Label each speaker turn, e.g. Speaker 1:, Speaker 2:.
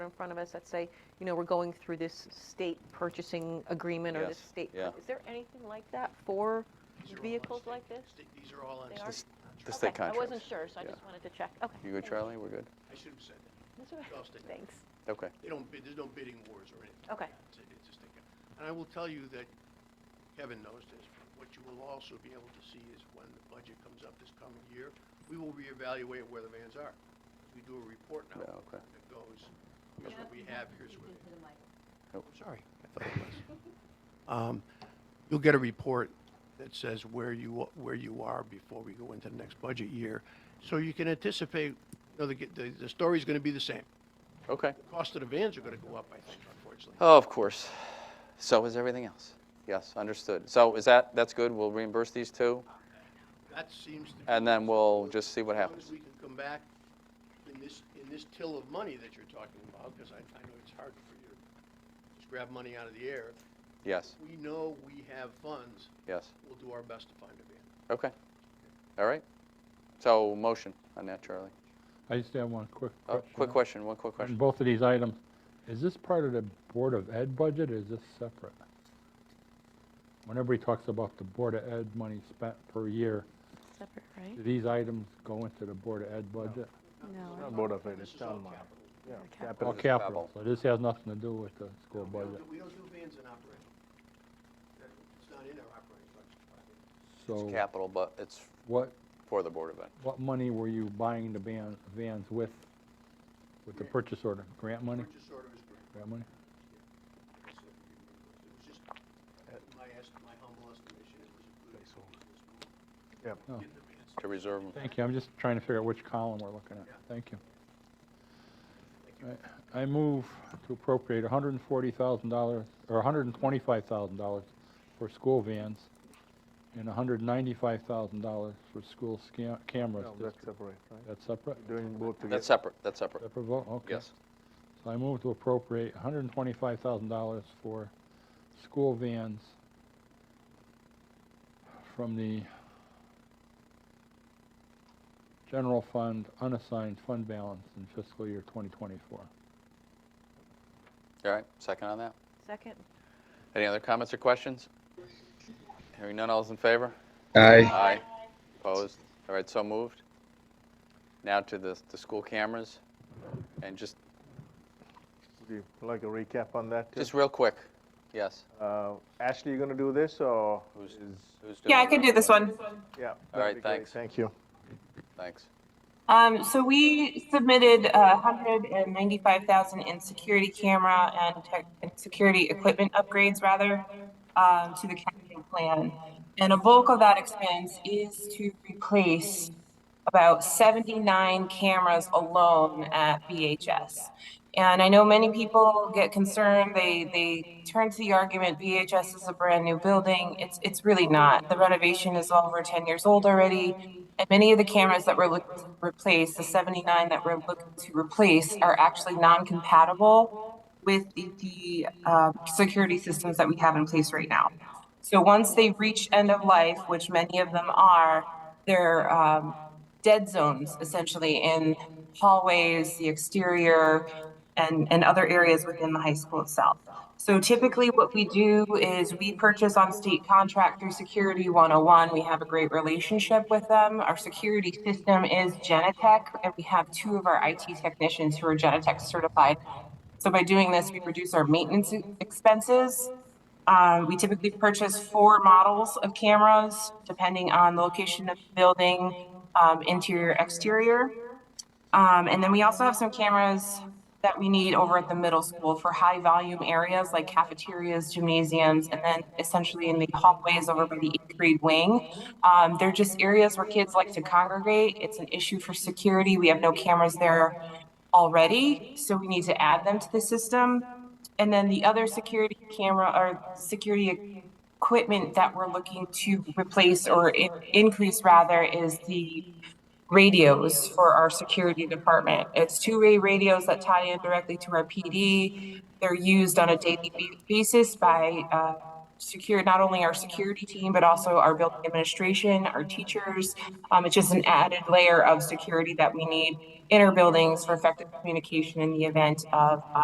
Speaker 1: in front of us that say, you know, we're going through this state purchasing agreement or this
Speaker 2: Yes,
Speaker 1: state?
Speaker 2: yeah.
Speaker 1: Is there anything like that for
Speaker 3: These are all on
Speaker 1: vehicles
Speaker 3: state-
Speaker 1: like this?
Speaker 3: state- These are all on
Speaker 1: They
Speaker 3: state
Speaker 1: are?
Speaker 3: contracts.
Speaker 2: The state
Speaker 1: Okay, I wasn't
Speaker 2: contracts.
Speaker 1: sure, so I
Speaker 2: Yeah.
Speaker 1: just wanted to check. Okay.
Speaker 2: You good,
Speaker 1: thank
Speaker 2: Charlie? We're good?
Speaker 3: I should have said that.
Speaker 1: That's all right.
Speaker 3: I'll stay.
Speaker 1: Thanks.
Speaker 2: Okay.
Speaker 3: They don't bid, there's no bidding wars or anything.
Speaker 1: Okay.
Speaker 3: It's a- it's a state con- And I will tell you that Kevin knows this, but what you will also be able to see is when the budget comes up this coming year, we will reevaluate where the vans are. We do a report now.
Speaker 2: Yeah, okay.
Speaker 3: That goes, here's what we have, here's what. we-
Speaker 2: Oh.
Speaker 3: I'm sorry, I thought it was. Um, You'll get a report that says where you, where you are before we go into the next budget year. So you can anticipate, you know, the, the, the story's gonna be the same.
Speaker 2: Okay.
Speaker 3: The Cost of the vans are gonna go up, I think, unfortunately.
Speaker 2: Oh, of course. So is everything else. Yes, understood. So is that, that's good? We'll reimburse these two?
Speaker 3: That seems to be.
Speaker 2: And then we'll just see what
Speaker 3: As long
Speaker 2: happens.
Speaker 3: as we can come back in this, in this till of money that you're talking about, because I, I know it's hard for you to just grab money out of the air.
Speaker 2: Yes,
Speaker 3: We know we have funds,
Speaker 2: yes.
Speaker 3: we'll do our best to find a van.
Speaker 2: Okay. All right. So motion on that, Charlie.
Speaker 4: I just have one quick
Speaker 2: Oh,
Speaker 4: question.
Speaker 2: quick question, one quick
Speaker 4: On
Speaker 2: question.
Speaker 4: both of these items, is this part of the Board of Ed budget, or is this separate? Whenever he talks about the Board of Ed money spent per year,
Speaker 5: Separate, right?
Speaker 1: Hmm?
Speaker 4: do these items go into the Board of Ed budget?
Speaker 5: No.
Speaker 6: Not Board of Ed,
Speaker 3: This
Speaker 6: it's
Speaker 3: is all
Speaker 6: town money.
Speaker 3: capital.
Speaker 6: Yeah,
Speaker 5: Okay.
Speaker 6: capital.
Speaker 4: Or
Speaker 2: This is
Speaker 4: capital,
Speaker 2: Babel.
Speaker 4: so this has nothing to do with the school
Speaker 3: We don't
Speaker 4: budget.
Speaker 3: do- We don't do vans in operating. That- It's not in our operating budget.
Speaker 4: So
Speaker 2: It's capital, but it's
Speaker 4: what,
Speaker 2: for the Board of Ed.
Speaker 4: what money were you buying the van, vans with, with the purchase order? Grant money?
Speaker 3: Purchase order is great.
Speaker 4: Grant money?
Speaker 3: So It was just,
Speaker 6: Uh,
Speaker 3: my est, my humble estimation, it was a good.
Speaker 6: Yep.
Speaker 4: Oh.
Speaker 3: Get the vans.
Speaker 2: To reserve 'em.
Speaker 4: Thank you, I'm just trying to figure out which column we're looking at.
Speaker 3: Yeah.
Speaker 4: Thank you.
Speaker 3: Thank you.
Speaker 4: All right. I move to appropriate $140,000, or $125,000 for school vans and $195,000 for school sca- cameras.
Speaker 6: No, that's
Speaker 4: That's-
Speaker 6: separate, right?
Speaker 4: That's separate?
Speaker 6: Doing both together.
Speaker 2: That's separate, that's separate.
Speaker 4: Separate vote, okay.
Speaker 2: Yes.
Speaker 4: So I move to appropriate $125,000 for school vans from the general fund unassigned fund balance in fiscal year 2024.
Speaker 2: All right, second on that.
Speaker 1: Second?
Speaker 2: Any other comments or questions? Hearing none, all's in favor?
Speaker 7: Aye.
Speaker 2: Aye. Opposed? All right, so moved. Now to the, the school cameras, and just,
Speaker 6: Would you like a recap on that? too?
Speaker 2: just real quick, yes,
Speaker 6: Uh, Ashley, you gonna do this, or
Speaker 2: Who's-
Speaker 6: is?
Speaker 2: who's doing?
Speaker 8: Yeah, I can do this one.
Speaker 6: Yeah. that'd
Speaker 2: right,
Speaker 6: be great.
Speaker 2: thanks.
Speaker 6: Thank you.
Speaker 2: Thanks.
Speaker 8: Um, so we submitted uh hundred and ninety-five thousand in security camera and tech, and security equipment upgrades rather, um, to the capital plan. And a bulk of that expense is to replace about seventy-nine cameras alone at VHS. And I know many people get concerned, they, they turn to the argument, VHS is a brand new building. It's, it's really not. The renovation is over ten years old already. And many of the cameras that we're looking to replace, the seventy-nine that we're looking to replace are actually non-compatible with the, the, uh, security systems that we have in place right now. So once they reach end of life, which many of them are, they're, um, dead zones essentially in hallways, the exterior, and, and other areas within the high school itself. So typically what we do is we purchase on state contract through Security 101. We have a great relationship with them. Our security system is Genetech, and we have two of our IT technicians who are Genetech certified. So by doing this, we reduce our maintenance e-, expenses. Um, we typically purchase four models of cameras, depending on the location of the building, um, interior, exterior. Um, and then we also have some cameras that we need over at the middle school for high volume areas like cafeterias, gymnasiums, and then essentially in the hallways over by the eighth grade wing. Um, they're just areas where kids like to congregate. It's an issue for security. We have no cameras there already, so we need to add them to the system. And then the other security camera or security equipment that we're looking to replace or i- increase rather is the radios for our security department. It's two-way radios that tie in directly to our PD. They're used on a daily ba- basis by uh, secure, not only our security team, but also our building administration, our teachers. Um, It's just an added layer of uh, security that we need in our buildings for effective communication in the event of